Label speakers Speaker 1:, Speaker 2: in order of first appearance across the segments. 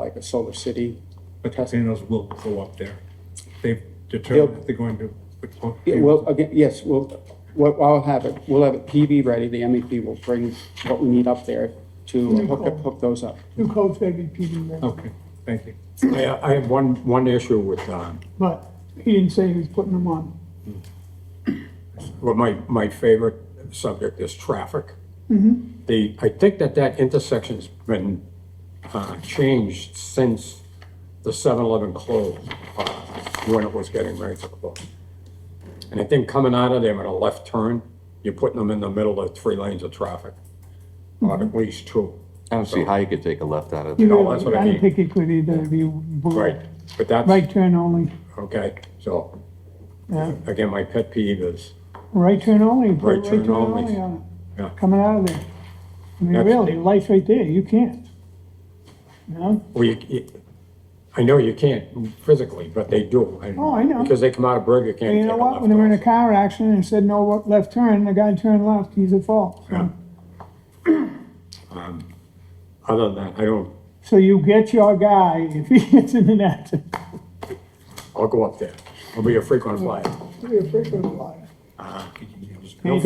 Speaker 1: like a Solar City.
Speaker 2: But Castellanos will go up there. They've determined that they're going to.
Speaker 1: Yeah, well, again, yes, we'll, what, I'll have it, we'll have it PV ready, the MEP will bring what we need up there to hook, up- hook those up.
Speaker 3: New code's gonna be PD ready,
Speaker 2: Okay, thank you.
Speaker 4: I, I have one, one issue with, um,
Speaker 3: but he didn't say he was putting them on.
Speaker 4: well, my, my favorite subject is traffic. The, I think that that intersection's been, uh, changed since the 7-Eleven closed, uh, when it was getting ready to close. And I think coming out of there with a left turn, you're putting them in the middle of three lanes of traffic, or at least two.
Speaker 5: I don't see how you could take a left out of
Speaker 3: He
Speaker 5: there.
Speaker 4: No,
Speaker 3: really-
Speaker 4: that's what I mean.
Speaker 3: didn't think he could either, if you.
Speaker 4: Right, but that's,
Speaker 3: Right turn only,
Speaker 4: okay, so,
Speaker 3: yeah,
Speaker 4: again, my pet peeve is,
Speaker 3: right turn only, put
Speaker 4: Right
Speaker 3: right
Speaker 4: turn
Speaker 3: turn
Speaker 4: only.
Speaker 3: only on
Speaker 4: Yeah.
Speaker 3: it, coming out of there. I mean,
Speaker 4: That's-
Speaker 3: really, lights right there, you can't. You know,
Speaker 4: Well, you, you- I know you can't physically, but they do. and-
Speaker 3: Oh, I know.
Speaker 4: Because they come out of Burger King.
Speaker 3: and you know
Speaker 4: take a
Speaker 3: what, when they were in a
Speaker 4: left
Speaker 3: car accident and said no wa- left turn, the guy turned left, he's at fault, so.
Speaker 4: off. Um, Other than that, I don't,
Speaker 3: So you get your guy if he gets in an accident.
Speaker 4: I'll go up there. I'll be a frequent flyer. No
Speaker 3: Anything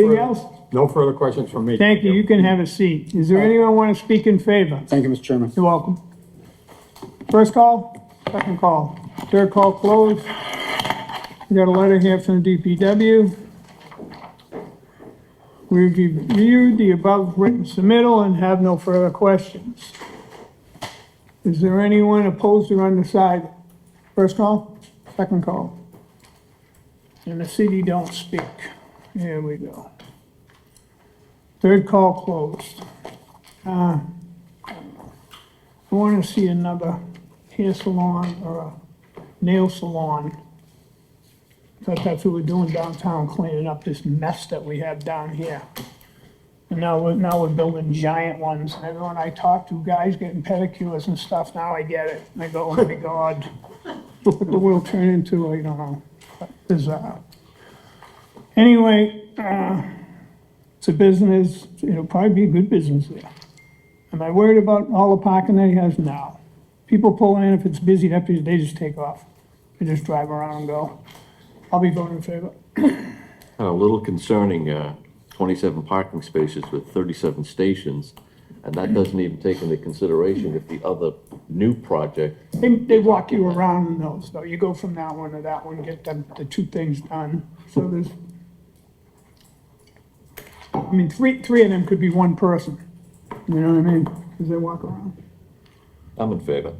Speaker 4: further-
Speaker 3: else?
Speaker 4: No further questions from me.
Speaker 3: Thank you, you can have a seat. Is
Speaker 4: Uh,
Speaker 3: there anyone want to speak in favor?
Speaker 1: Thank you, Mr. Chairman.
Speaker 3: You're welcome. First call, second call, third call closed. We got a letter here from the DPW. We reviewed the above written submittal and have no further questions. Is there anyone opposed or undecided? First call, second call. And the city don't speak. Here we go. Third call closed. I want to see another hair salon or a nail salon. Thought that's what we're doing downtown, cleaning up this mess that we have down here. And now we're, now we're building giant ones, and everyone I talk to, guys getting pedicures and stuff, now I get it. And I go, oh my God, what the world turned into, I don't know, bizarre. Anyway, uh, it's a business, it'll probably be a good business there. Am I worried about all the parking that he has? No. People pull in, if it's busy, that busy, they just take off. They just drive around and go. I'll be voting in favor.
Speaker 5: Kind of a little concerning, uh, twenty-seven parking spaces with thirty-seven stations. And that doesn't even take into consideration if the other new project,
Speaker 3: They, they walk you around in those, though. You go from that one to that one, get them, the two things done. So there's, I mean, three, three of them could be one person. You know what I mean? Because they walk around.
Speaker 5: I'm in favor.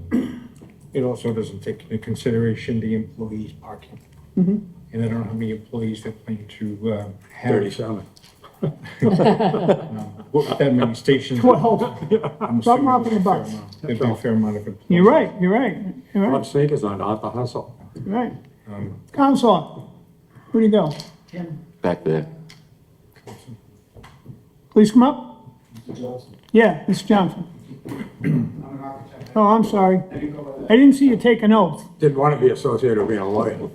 Speaker 2: It also doesn't take into consideration the employees' parking.
Speaker 3: Mm-hmm.
Speaker 2: And I don't know how many employees they're planning to uh, have,
Speaker 4: Thirty-seven.
Speaker 2: What, that many stations.
Speaker 3: Well,
Speaker 2: I'm
Speaker 3: something
Speaker 2: assuming
Speaker 3: up in
Speaker 2: there'll be a fair
Speaker 3: the box.
Speaker 2: amount- There'll be a fair amount of employees.
Speaker 3: you're right, you're right, you're
Speaker 4: Love
Speaker 3: right,
Speaker 4: sneakers on, not the hustle.
Speaker 3: you're right. Counselor, where do you go?
Speaker 5: Back there.
Speaker 3: Please come up. Yeah, Mr. Johnson. Oh, I'm sorry. I didn't see you take an oath.
Speaker 4: Didn't want to be associated with being a lawyer.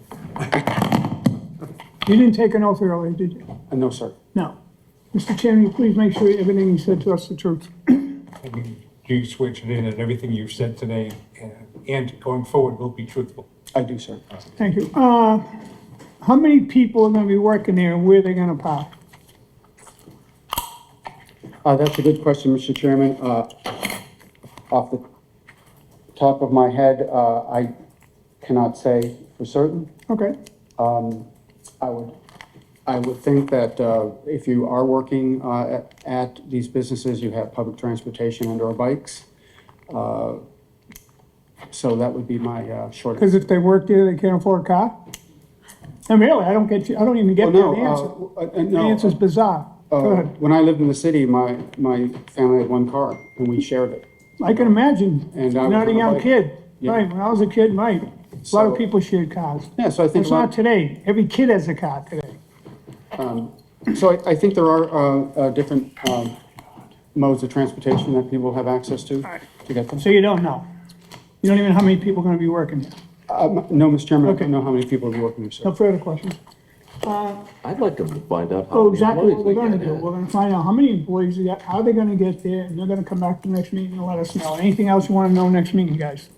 Speaker 3: You didn't take an oath earlier, did you?
Speaker 1: Uh, No, sir.
Speaker 3: No. Mr. Chairman, you please make sure everything you said to us is the truth.
Speaker 2: You switch it in and everything you've said today and- and going forward will be truthful.
Speaker 1: I do, sir.
Speaker 3: Thank you. Uh, how many people are gonna be working there and where they gonna park?
Speaker 1: Uh, that's a good question, Mr. Chairman. Uh, off the top of my head, uh, I cannot say for certain.
Speaker 3: Okay,
Speaker 1: Um, I would, I would think that uh, if you are working uh, at- at these businesses, you have public transportation and/or bikes. Uh, So that would be my uh, short.
Speaker 3: because if they work there, they can't afford a car? And really, I don't get you, I don't even
Speaker 1: Well,
Speaker 3: get the
Speaker 1: no,
Speaker 3: answer.
Speaker 1: uh, uh,
Speaker 3: The
Speaker 1: no,
Speaker 3: answer's bizarre. Go
Speaker 1: uh,
Speaker 3: ahead.
Speaker 1: When I lived in the city, my, my family had one car and we shared it.
Speaker 3: I can imagine,
Speaker 1: And I was
Speaker 3: not a
Speaker 1: on a
Speaker 3: young
Speaker 1: bike.
Speaker 3: kid,
Speaker 1: Yeah.
Speaker 3: right, when I was a kid, right, a lot of
Speaker 1: So-
Speaker 3: people shared cars.
Speaker 1: Yeah, so I think.
Speaker 3: It's not
Speaker 1: about-
Speaker 3: today, every kid has a car today.
Speaker 1: So I, I think there are, uh, uh, different, um, modes of transportation that people have access to, to get them.
Speaker 3: So you don't know. You don't even know how many people are gonna be working there.
Speaker 1: Um, no, Mr. Chairman, I
Speaker 3: Okay.
Speaker 1: don't know how many people are working here,
Speaker 3: No
Speaker 1: sir.
Speaker 3: further questions.
Speaker 5: I'd like to find
Speaker 1: Oh,
Speaker 5: out
Speaker 3: So
Speaker 5: how many
Speaker 3: exactly what
Speaker 5: employees
Speaker 3: we're
Speaker 5: they
Speaker 3: gonna
Speaker 5: got
Speaker 3: do,
Speaker 5: there.
Speaker 3: we're gonna find out how many employees we got, how they're gonna get there, and they're gonna come back to the next meeting and let us know. Anything else you wanna know next meeting, guys?